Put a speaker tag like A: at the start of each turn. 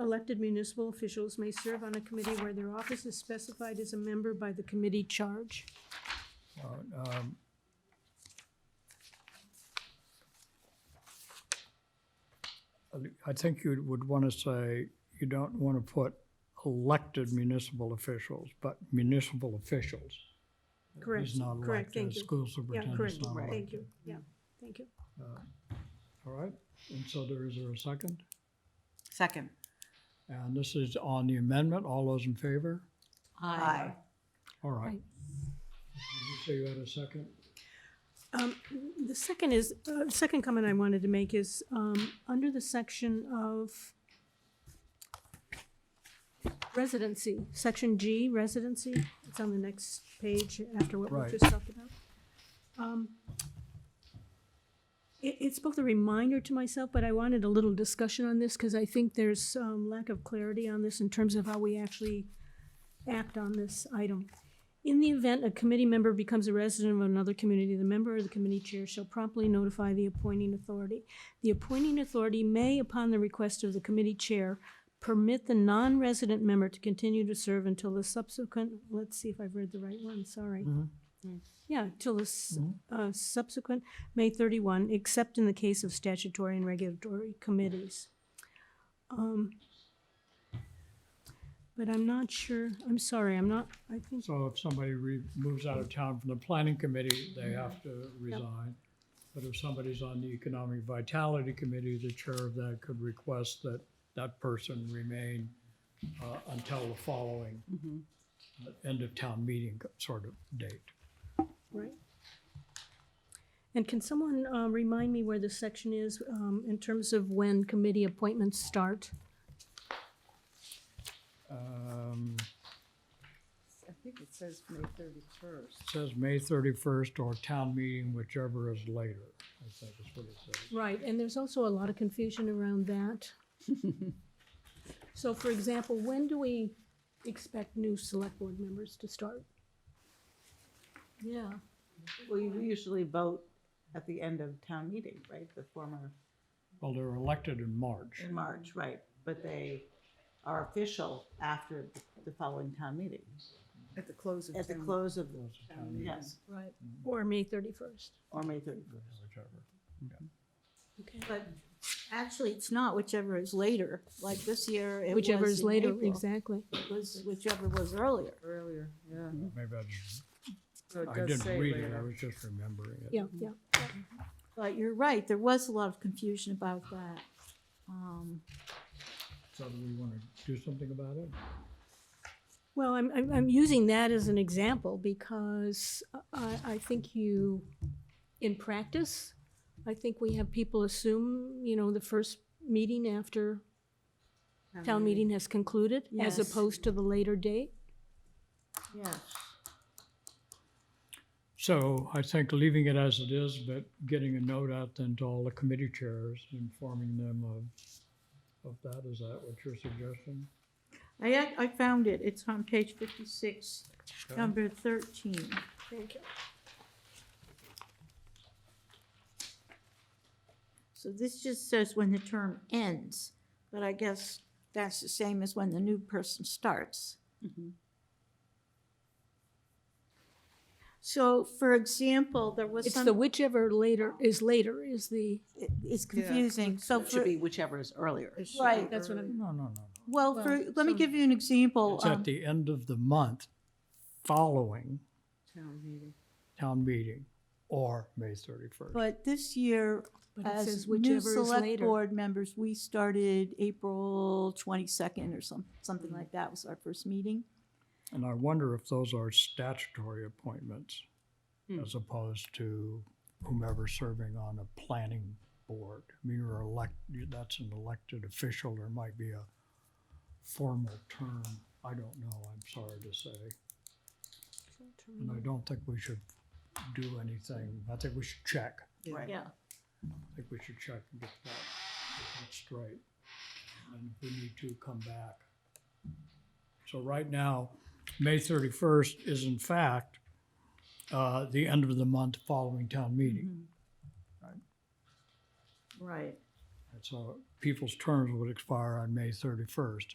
A: elected municipal officials may serve on a committee where their office is specified as a member by the committee charge.
B: Um, I- I think you would want to say, you don't want to put elected municipal officials, but municipal officials.
A: Correct,
B: He's not
A: correct,
B: elected,
A: thank you.
B: school
A: Yeah,
B: superintendent's
A: correct,
B: not
A: thank
B: elected.
A: you, yeah, thank you.
B: All right, and so there, is there a second?
C: Second.
B: And this is on the amendment, all those in favor?
C: Aye.
B: All right. Did you say you had a second?
A: The second is, uh, second comment I wanted to make is, um, under the section of residency, section G, residency, it's on the next page after what
B: Right.
A: we just talked about. Um, It, it's both a reminder to myself, but I wanted a little discussion on this, because I think there's, um, lack of clarity on this in terms of how we actually act on this item. In the event a committee member becomes a resident of another community, the member or the committee chair shall promptly notify the appointing authority. The appointing authority may, upon the request of the committee chair, permit the non-resident member to continue to serve until the subsequent, let's see if I've read the right one, sorry. Yeah, till the s- uh, subsequent May thirty-one, except in the case of statutory and regulatory committees. Um, But I'm not sure, I'm sorry, I'm not, I think
B: So if somebody re- moves out of town from the planning committee,
C: Mm-hmm.
B: they have to resign. But if somebody's on the economic vitality committee, the chair of that could request that that person remain uh, until the following
C: Mm-hmm.
B: uh, end of town meeting sort of date.
A: Right. And can someone uh, remind me where the section is um, in terms of when committee appointments start?
B: Um,
C: I think it says May thirty-first.
B: It says May thirty-first or town meeting, whichever is later, I think is what it says.
A: Right, and there's also a lot of confusion around that. So for example, when do we expect new select board members to start? Yeah,
D: We usually vote at the end of town meeting, right, the former,
B: Well, they're elected in March.
D: in March, right, but they are official after the following town meeting,
C: At the close of
D: at the
C: town-
D: close of,
B: Those are town meeting,
D: yes,
A: right, or May thirty-first,
D: or May thirty-first.
C: Mm-hmm.
B: whichever.
A: okay.
E: But actually, it's not whichever is later, like this year. it
A: Whichever
E: was
A: is
E: in
A: later,
E: April.
A: exactly.
E: It was whichever was earlier.
C: Earlier, yeah.
B: Maybe I just,
C: So it
B: I
C: does say
B: didn't read it, I
C: later.
B: was just remembering it.
A: Yeah, yeah.
E: But you're right, there was a lot of confusion about that. Um,
B: So do we want to do something about it?
A: Well, I'm, I'm, I'm using that as an example because I, I think you, in practice, I think we have people assume, you know, the first meeting after town meeting has concluded, as
E: Yes.
A: opposed to the later date.
E: Yeah,
B: So I think leaving it as it is, but getting a note out then to all the committee chairs, informing them of, of that, is that what your suggestion?
E: I, ac- I found it, it's on page fifty-six, number thirteen.
A: Thank you.
E: So this just says when the term ends, but I guess that's the same as when the new person starts.
A: Mm-hmm.
E: So, for example, there was
A: It's
E: some.
A: the whichever later is later is the,
E: it- it's confusing, so
D: It should
E: for,
D: be whichever is earlier.
E: right,
A: that's what I'm,
B: No, no, no,
E: well,
A: well,
E: for, let me
A: some-
E: give you an
B: no.
E: example.
B: It's at
E: um,
B: the end of the month following
C: Town meeting.
B: town meeting or May thirty-first.
E: But this year,
A: but it
E: as
A: says
E: new
A: whichever is
E: select
A: later.
E: board members, we started April twenty-second or some, something like that was our first meeting.
B: And I wonder if those are statutory appointments as opposed to whomever serving on a planning board. I mean, you're elect, that's an elected official, there might be a formal term. I don't know, I'm sorry to say. And I don't think we should do anything. I think we should check.
D: Right.
E: Yeah.
B: I think we should check and get that, get that straight. And if we need to, come back. So right now, May thirty-first is in fact, uh, the end of the month following town meeting.
E: Right.
B: I So people's terms would expire on May thirty-first,